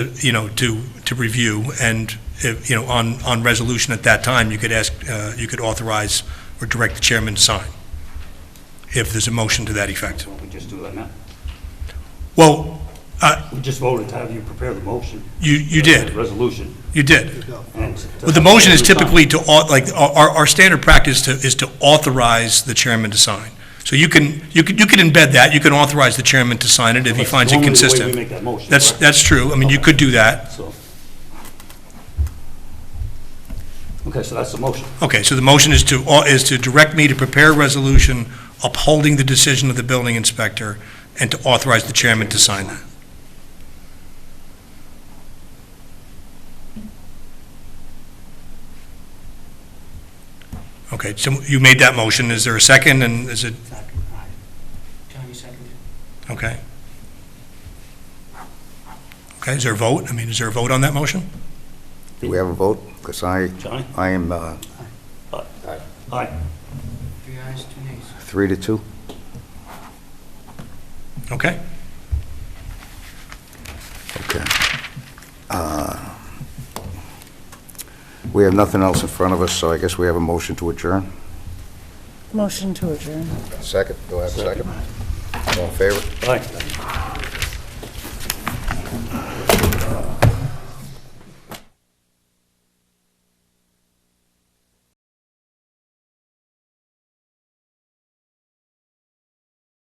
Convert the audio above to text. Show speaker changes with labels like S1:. S1: you know, to, to review, and, if, you know, on, on resolution at that time, you could ask, uh, you could authorize or direct the chairman to sign, if there's a motion to that effect.
S2: Well, we just do that now.
S1: Well,
S2: We just voted to have you prepare the motion.
S1: you, you did,
S2: Resolution.
S1: you did.
S2: and to-
S1: Well, the motion is typically to, au- like, our, our- our standard practice to- is to authorize the chairman to sign. So you can, you can, you can embed that, you can authorize the chairman to sign it if he
S2: That's
S1: finds it
S2: normally the way we
S1: consistent.
S2: make that motion,
S1: That's,
S2: right?
S1: that's true, I mean, you could do that.
S2: So. Okay, so that's the motion.
S1: Okay, so the motion is to, au- is to direct me to prepare a resolution upholding the decision of the building inspector and to authorize the chairman to sign that. Okay, so you made that motion, is there a second, and is it,
S3: Johnny seconded.
S1: okay? Okay, is there a vote? I mean, is there a vote on that motion?
S4: Do we have a vote? Because I,
S2: Johnny?
S4: I am uh,
S2: Aye.
S3: Three ayes, two nays.
S4: three to two.
S1: Okay,
S4: Okay. Uh, We have nothing else in front of us, so I guess we have a motion to adjourn.
S5: Motion to adjourn.
S4: Second, do I have a second? All in favor?
S2: Aye.